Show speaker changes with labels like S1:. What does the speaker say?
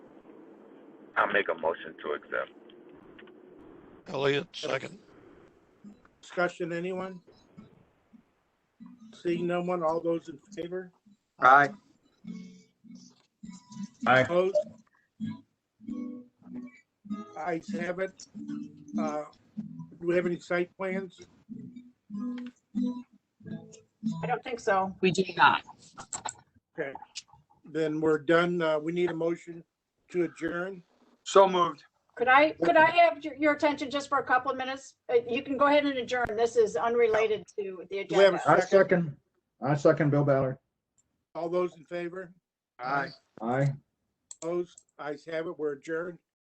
S1: I'll make a motion to accept.
S2: Elliot, second.
S3: Discussion, anyone? Seeing no one, all those in favor?
S4: Aye.
S5: Aye.
S3: Opposed? Ayes have it. Uh, Do we have any site plans?
S6: I don't think so.
S7: We do not.
S3: Then we're done. Uh, We need a motion to adjourn.
S4: So moved.
S6: Could I, could I have your- your attention just for a couple of minutes? Uh, You can go ahead and adjourn. This is unrelated to the
S3: Do we have
S6: agenda.
S3: a
S5: I
S3: second?
S5: second, I second Bill Ballard.
S3: All those in favor?
S4: Aye.
S5: Aye.
S3: Opposed? Ayes have it. We're adjourned.